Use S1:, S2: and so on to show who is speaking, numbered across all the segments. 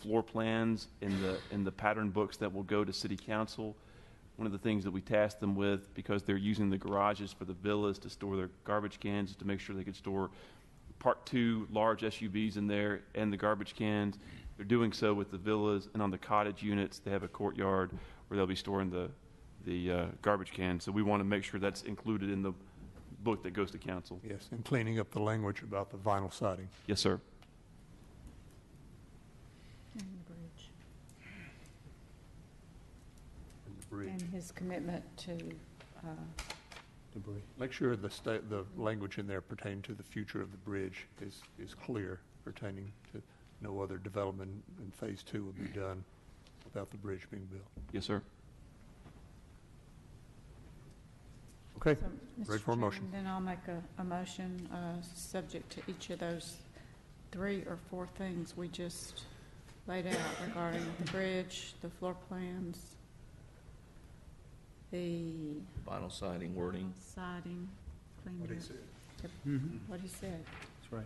S1: floor plans and the, and the pattern books that will go to city council. One of the things that we tasked them with, because they're using the garages for the villas to store their garbage cans, to make sure they could store part two large SUVs in there and the garbage cans. They're doing so with the villas and on the cottage units, they have a courtyard where they'll be storing the, the uh, garbage cans. So we want to make sure that's included in the book that goes to council.
S2: Yes, and cleaning up the language about the vinyl siding.
S1: Yes, sir.
S3: And the bridge,
S2: and the bridge.
S3: and his commitment to, uh,
S2: Make sure the sta, the language in there pertaining to the future of the bridge is, is clear pertaining to no other development in phase two will be done without the bridge being built.
S1: Yes, sir.
S2: Okay,
S3: so,
S2: Ready
S3: Mr.
S2: for a motion.
S3: Chairman, Then I'll make a, a motion, uh, subject to each of those three or four things we just laid out regarding the bridge, the floor plans, the
S4: Vinyl siding wording.
S3: siding, cleaning up. What he said,
S5: That's right.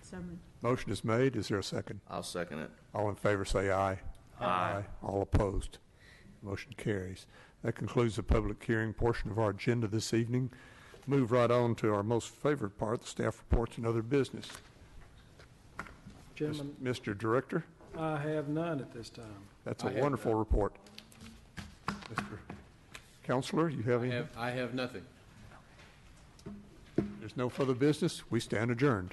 S3: so moved.
S2: motion is made. Is there a second?
S4: I'll second it.
S2: All in favor, say aye. All opposed. Motion carries. That concludes the public hearing portion of our agenda this evening. Move right on to our most favorite part, the staff reports and other business.
S5: Gentlemen,
S2: Mr. Director,
S5: I have none at this time.
S2: that's a
S6: I have
S2: wonderful
S6: none.
S2: report. Mr. Counselor, you have
S6: I
S2: any?
S6: have, I have nothing.
S2: There's no further business. We stand adjourned.